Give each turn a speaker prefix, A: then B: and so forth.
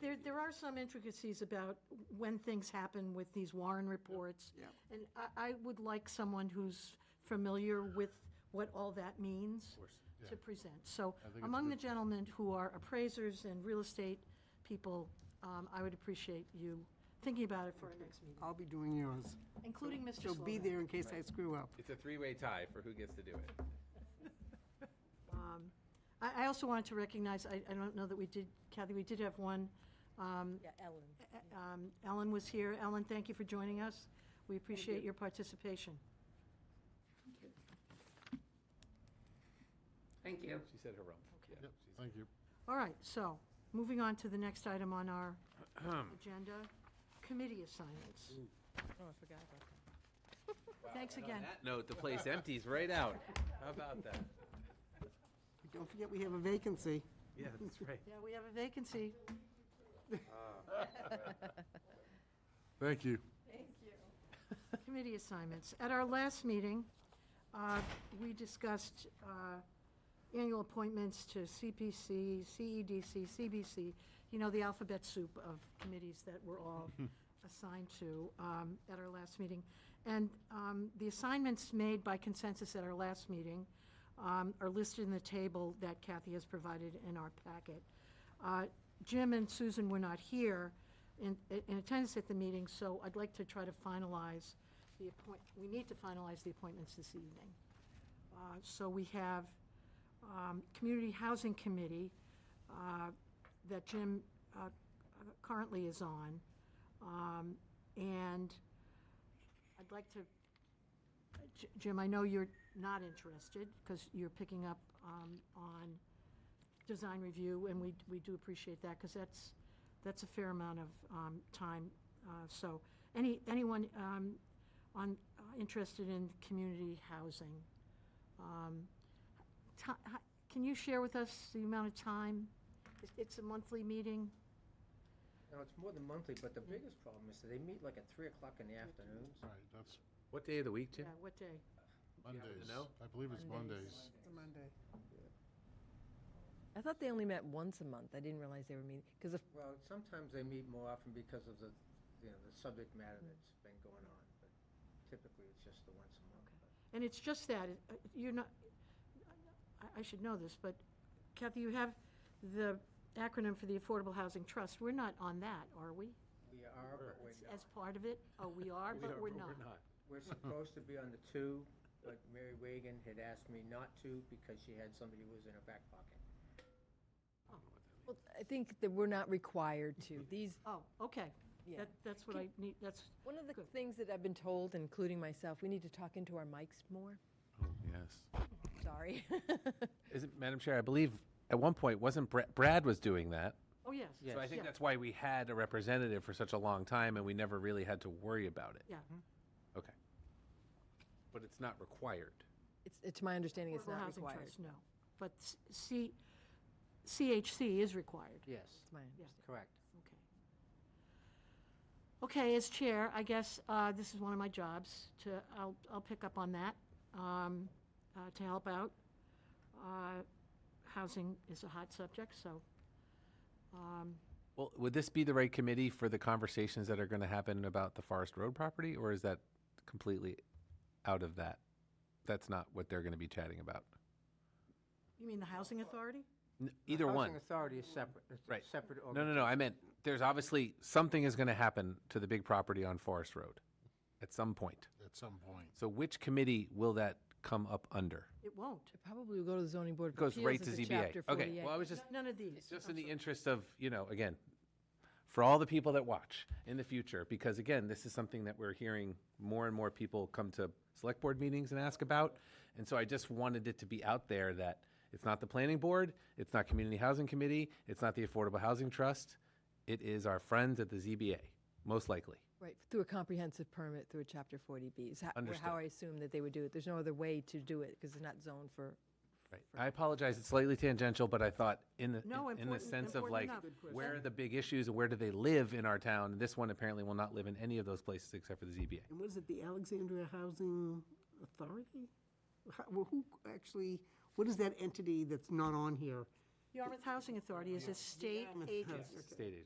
A: there, there are some intricacies about when things happen with these Warren reports.
B: Yeah.
A: And I, I would like someone who's familiar with what all that means. To present. So
C: it's
A: among the gentlemen who are appraisers and real estate people, um, I would appreciate you thinking about it for our next meeting,
B: I'll be doing yours.
A: including Mr.
B: So
A: Slovan.
B: be there in case I screw up.
D: It's a three-way tie for who gets to do it.
A: I, I also wanted to recognize, I, I don't know that we did, Kathy, we did have one
E: Yeah, Ellen.
A: Um, Ellen was here. Ellen, thank you for joining us. We appreciate your participation.
F: Thank you.
D: She said harumph. Yeah.
C: Yep, thank you.
A: All right, so, moving on to the next item on our agenda, committee assignments.
E: Oh, I forgot about that.
A: Thanks
D: And on
A: again.
D: that note, the place empties right out. How about that?
B: Don't forget, we have a vacancy.
D: Yeah, that's right.
A: Yeah, we have a vacancy.
C: Thank you.
A: committee assignments. At our last meeting, uh, we discussed uh, annual appointments to CPC, CEDC, CBC, you know, the alphabet soup of committees that we're all assigned to um, at our last meeting. And um, the assignments made by consensus at our last meeting um, are listed in the table that Kathy has provided in our packet. Uh, Jim and Susan were not here in, in attendance at the meeting, so I'd like to try to finalize the appoint, we need to finalize the appointments this evening. Uh, So we have um, Community Housing Committee uh, that Jim uh, currently is on. Um, And I'd like to, J- Jim, I know you're not interested because you're picking up um, on design review, and we, we do appreciate that, because that's, that's a fair amount of um, time. Uh, So, any, anyone um, on, uh, interested in community housing? um, ti- hi- Can you share with us the amount of time? It- It's a monthly meeting?
G: No, it's more than monthly, but the biggest problem is that they meet like at Mm. three o'clock in the afternoon.
C: All right, that's
D: What day of the week, Jim?
A: Yeah, what day?
C: Mondays.
D: know?
C: I believe it's Mondays.
B: It's a Monday.
E: I thought they only met once a month. I didn't realize they were meeting, because if,
G: Well, sometimes they meet more often because of the, you know, the subject matter that's been going on, but typically it's just the once a month.
A: And it's just that, it- uh, you're not, I- I should know this, but Kathy, you have the acronym for the Affordable Housing Trust. We're not on that, are we?
G: We are, but we're
A: As
G: not.
A: part of it? Oh, we are,
D: We are,
A: but we're not.
G: We're supposed to be on the two, but Mary Wagon had asked me not to because she had somebody who was in her back pocket.
E: well, I think that we're not required to. These,
A: Oh, okay.
E: Yeah.
A: That- That's what I need, that's,
E: one of the things that I've been told, including myself, we need to talk into our mics more.
D: Yes.
E: Sorry.
D: Isn't, Madam Chair, I believe at one point, wasn't Brad, Brad was doing that?
A: oh, yes.
D: So I think
A: Yeah,
D: that's why we had a representative for such a long time and we never really had to worry about it.
A: Yeah.
D: Okay. But it's not required.
E: It's, it's my understanding it's
A: Affordable
E: not
A: Housing
E: required.
A: Trust, no. But s- C, CHC is required.
G: Yes,
E: It's my
A: Yeah.
E: understanding.
G: correct.
A: Okay. Okay, as chair, I guess uh, this is one of my jobs to, I'll, I'll pick up on that, um, uh, to help out. Uh, Housing is a hot subject, so,
D: Well, would this be the right committee for the conversations that are going to happen about the Forest Road property, or is that completely out of that? That's not what they're going to be chatting about.
A: you mean the Housing Authority?
D: N- Either
G: Housing
D: one,
G: Authority is separate, it's a
D: right?
G: separate
D: No, no, no. I meant there's obviously something is going to happen to the big property on Forest Road at some point.
C: At some point.
D: So which committee will that come up under?
A: It won't.
E: It Probably will go to the zoning board
D: It
E: of
D: goes
E: appeals.
D: right to
E: as a
D: ZBA.
E: chapter
D: Okay. Well, I
E: 48.
D: was just
A: None of these.
D: Just in the interest of, you know, again, for all the people that watch in the future, because again, this is something that we're hearing more and more people come to select board meetings and ask about. And so I just wanted it to be out there that it's not the planning board, it's not community housing committee, it's not the affordable housing trust. It is our friends at the ZBA, most likely.
E: Right, through a comprehensive permit, through a chapter 40B is how,
D: Understood.
E: how I assume that they would do it. There's no other way to do it because it's not zoned for.
D: Right. I apologize, it's slightly tangential, but I thought in the,
A: No,
D: in- in the
A: important-
D: sense of
A: important
D: like,
A: enough. Good question.
D: where are the big issues and where do they live in our town? This one apparently will not live in any of those places except for the ZBA.
B: And what is it, the Alexandria Housing Authority? How- Well, who actually, what is that entity that's not on here?
A: Yarmouth Housing Authority is a state
B: Yarmouth
A: agency.
B: Housing.
D: Stated.